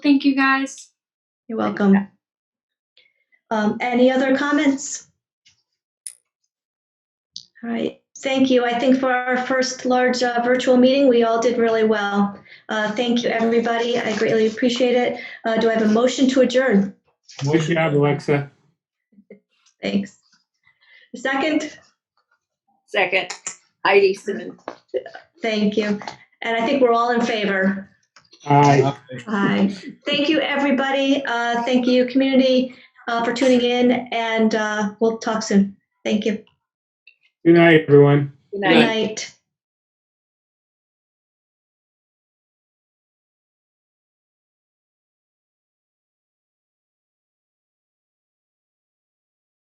Thank you guys. You're welcome. Um, any other comments? All right, thank you. I think for our first large uh, virtual meeting, we all did really well. Uh, thank you, everybody. I greatly appreciate it. Uh, do I have a motion to adjourn? Good job, Alexa. Thanks. Second, Second, Heidi Simmons. thank you. And I think we're all in favor. Aye. Aye. Thank you, everybody. Uh, thank you, community, uh, for tuning in, and uh, we'll talk soon. Thank you. Good night, everyone. Good Good night. night.